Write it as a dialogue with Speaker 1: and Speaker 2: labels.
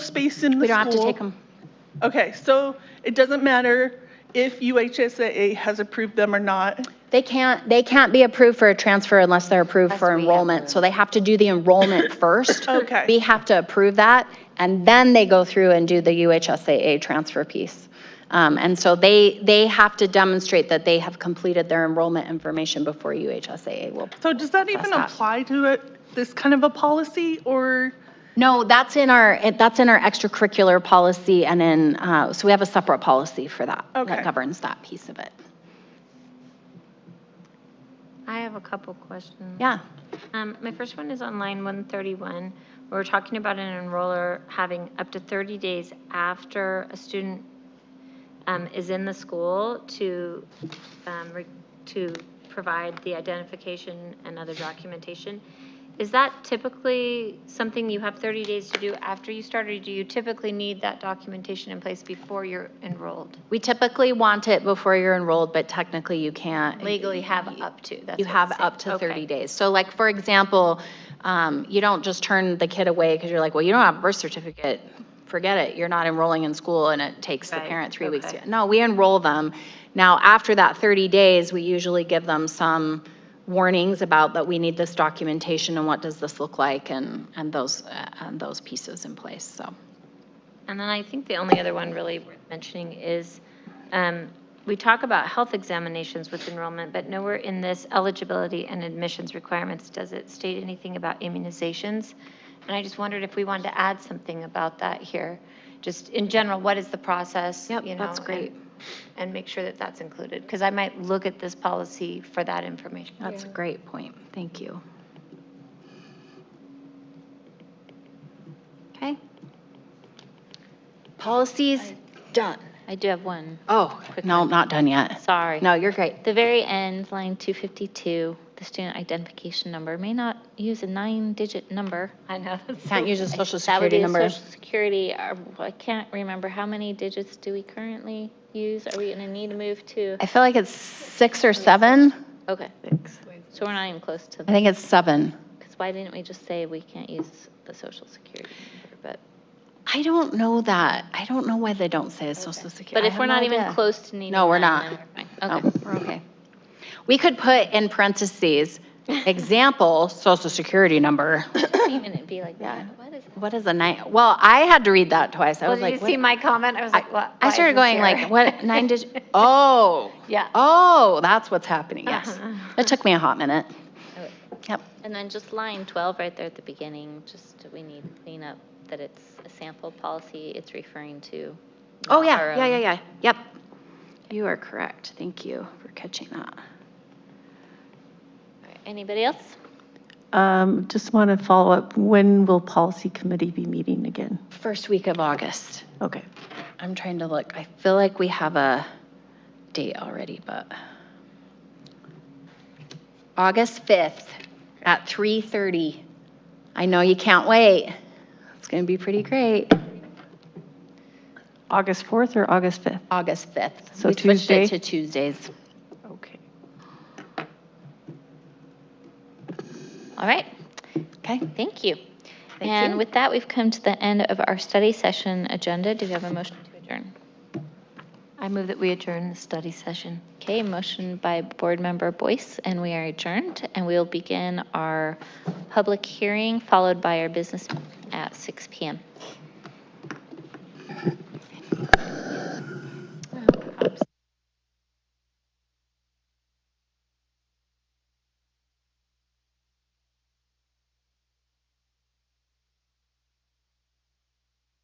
Speaker 1: space in the school.
Speaker 2: We don't have to take them.
Speaker 1: Okay, so it doesn't matter if UHSAA has approved them or not.
Speaker 2: They can't, they can't be approved for a transfer unless they're approved for enrollment. So they have to do the enrollment first.
Speaker 1: Okay.
Speaker 2: We have to approve that, and then they go through and do the UHSAA transfer piece. Um, And so they, they have to demonstrate that they have completed their enrollment information before UHSAA will.
Speaker 1: So does that even
Speaker 2: That's that.
Speaker 1: apply to it, this kind of a policy or?
Speaker 2: No, that's in our, that's in our extracurricular policy and in, uh, so we have a separate policy for that.
Speaker 1: Okay.
Speaker 2: That governs that piece of it.
Speaker 3: I have a couple questions.
Speaker 2: Yeah.
Speaker 3: Um, my first one is on line one thirty-one. We're talking about an enroller having up to thirty days after a student um, is in the school to, um, re- to provide the identification and other documentation. Is that typically something you have thirty days to do after you start, or do you typically need that documentation in place before you're enrolled?
Speaker 2: We typically want it before you're enrolled, but technically you can't.
Speaker 3: Legally have up to, that's
Speaker 2: You
Speaker 3: what I'm
Speaker 2: have
Speaker 3: saying.
Speaker 2: up to
Speaker 3: Okay.
Speaker 2: 30 days. So like, for example, um, you don't just turn the kid away because you're like, well, you don't have a birth certificate. Forget it. You're not enrolling in school and it takes the
Speaker 3: Right,
Speaker 2: parent three weeks.
Speaker 3: okay.
Speaker 2: to- No, we enroll them. Now, after that 30 days, we usually give them some warnings about that we need this documentation and what does this look like and, and those, uh, and those pieces in place, so.
Speaker 3: And then I think the only other one really worth mentioning is, um, we talk about health examinations with enrollment, but nowhere in this eligibility and admissions requirements does it state anything about immunizations. And I just wondered if we wanted to add something about that here, just in general, what is the process?
Speaker 2: Yep,
Speaker 3: you know,
Speaker 2: that's great.
Speaker 3: and- And make sure that that's included, because I might look at this policy for that information.
Speaker 2: That's a great point. Thank you. Okay. Policies, done.
Speaker 4: I do have one,
Speaker 2: Oh, no, not done yet.
Speaker 4: sorry.
Speaker 2: No, you're great.
Speaker 4: The very end, line 252, the student identification number may not use a nine-digit number.
Speaker 3: I know. that's-
Speaker 2: Can't use a social
Speaker 4: That would
Speaker 2: security
Speaker 4: be a
Speaker 2: number.
Speaker 4: social security, uh, I can't remember, how many digits do we currently use? Are we going to need to move to,
Speaker 2: I feel like it's six or seven.
Speaker 4: okay. So we're not even close to,
Speaker 2: I think it's seven.
Speaker 4: because why didn't we just say we can't use the social security number? But,
Speaker 2: I don't know that. I don't know why they don't say social security.
Speaker 4: but if we're not even close to needing
Speaker 2: No, we're
Speaker 4: that,
Speaker 2: not.
Speaker 4: then we're fine.
Speaker 2: No,
Speaker 4: Okay.
Speaker 2: Oh, we're okay. We could put in parentheses, example, social security number.
Speaker 4: Even it'd be like,
Speaker 2: Yeah.
Speaker 4: what is
Speaker 2: What is a nine? Well, I had to read that twice. I
Speaker 3: Well,
Speaker 2: was
Speaker 3: did you
Speaker 2: like,
Speaker 3: see
Speaker 2: what-
Speaker 3: my comment? I was like, what? why
Speaker 2: I
Speaker 3: is
Speaker 2: started
Speaker 3: this
Speaker 2: going
Speaker 3: here?
Speaker 2: like, what nine digit? Oh,
Speaker 3: Yeah.
Speaker 2: oh, that's what's happening. Yes,
Speaker 3: Uh-huh.
Speaker 2: it took me a hot minute.
Speaker 4: Okay.
Speaker 2: Yep.
Speaker 4: And then just line 12 right there at the beginning, just we need to clean up that it's a sample policy it's referring to.
Speaker 2: Oh
Speaker 4: not our
Speaker 2: yeah, yeah,
Speaker 3: um,
Speaker 4: own.
Speaker 2: yeah, yeah. Yep. You are correct. Thank you for catching that.
Speaker 4: All right, Anybody else?
Speaker 5: Um, Just want to follow up, when will policy committee be meeting again?
Speaker 2: First week of August.
Speaker 5: Okay.
Speaker 2: I'm trying to look. I feel like we have a date already, but August 5th at 3:30. I know you can't wait. It's going to be pretty great.
Speaker 5: August 4th or August 5th?
Speaker 2: August 5th.
Speaker 5: So
Speaker 2: We switched it
Speaker 5: Tuesday?
Speaker 2: to Tuesdays.
Speaker 5: Okay.
Speaker 4: All right,
Speaker 2: Okay?
Speaker 4: thank you.
Speaker 2: Thank you.
Speaker 4: And with that, we've come to the end of our study session agenda. Do we have a motion to adjourn?
Speaker 3: I move that we adjourn the study session.
Speaker 4: Okay, motion by Board Member Boyce, and we are adjourned, and we'll begin our public hearing, followed by our business at 6 PM.